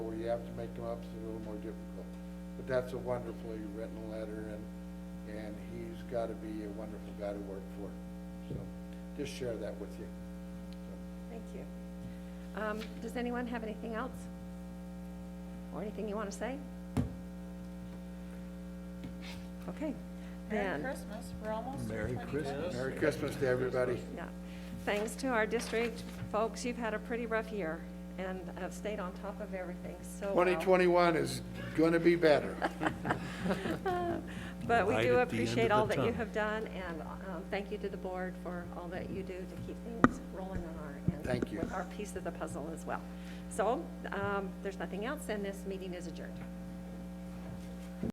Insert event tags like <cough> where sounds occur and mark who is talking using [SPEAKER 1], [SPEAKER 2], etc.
[SPEAKER 1] have to make them up, it's a little more difficult. But that's a wonderfully written letter, and, and he's gotta be a wonderful guy to work for. So, just share that with you. So,
[SPEAKER 2] Thank you. Um, Does anyone have anything else? Or anything you want to say? Okay,
[SPEAKER 3] Merry
[SPEAKER 2] then,
[SPEAKER 3] Christmas, we're almost to
[SPEAKER 4] Merry
[SPEAKER 3] 2020.
[SPEAKER 4] Christmas.
[SPEAKER 1] Merry Christmas to everybody.
[SPEAKER 2] yeah. Thanks to our district, folks, you've had a pretty rough year and have stayed on top of everything so well.
[SPEAKER 1] Twenty twenty-one is gonna be better.
[SPEAKER 2] <laughs> But we
[SPEAKER 4] Light
[SPEAKER 2] do
[SPEAKER 4] at the end
[SPEAKER 2] appreciate
[SPEAKER 4] of
[SPEAKER 2] all
[SPEAKER 4] the
[SPEAKER 2] that you
[SPEAKER 4] tunnel.
[SPEAKER 2] have done, and um, thank you to the board for all that you do to keep things rolling on our end.
[SPEAKER 1] Thank you.
[SPEAKER 2] With our piece of the puzzle as well. So um, there's nothing else, and this meeting is adjourned.